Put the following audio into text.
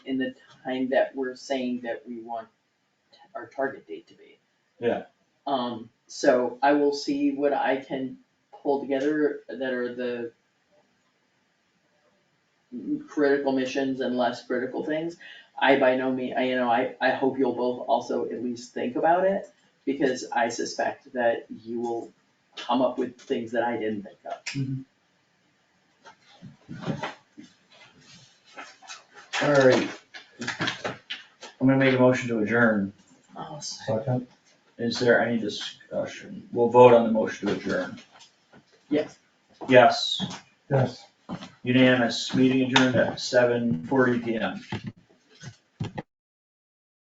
the time that we're saying that we want t- our target date to be. Yeah. Um, so I will see what I can pull together that are the m- critical missions and less critical things. I by no means, I, you know, I, I hope you'll both also at least think about it, because I suspect that you will come up with things that I didn't think of. Alright. I'm gonna make a motion to adjourn. Second, Is there any discussion? We'll vote on the motion to adjourn. Yes. Yes, yes. unanimous, meeting adjourned at seven forty P M.